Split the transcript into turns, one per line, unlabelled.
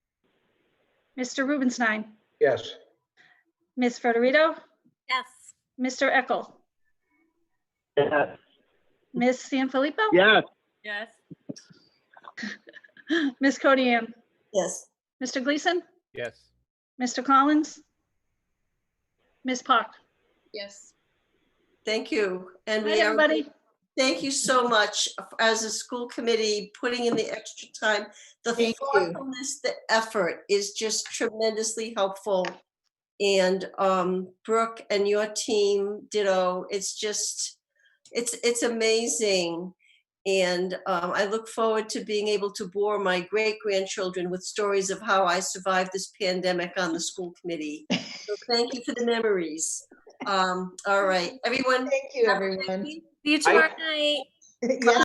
Mr. Rubenstein,
Yes.
Ms. Federito,
Yes.
Mr. Eckel,
Yes.
Ms. Sanfilippo,
Yes.
Yes.
Ms. Codian,
yes,
Mr. Gleason,
Yes.
Mr. Collins, Ms. Park.
Yes.
thank you. And
Hi,
we are,
everybody.
thank you so much as a school committee, putting in the extra time. The
Thank you.
thoughtfulness, the effort is just tremendously helpful. And um, Brooke and your team, ditto, it's just, it's, it's amazing. And um, I look forward to being able to bore my great grandchildren with stories of how I survived this pandemic on the school committee. So thank you for the memories. Um, all right, everyone.
Thank you,
have a great
everyone.
week.
See you tomorrow night.
Yes.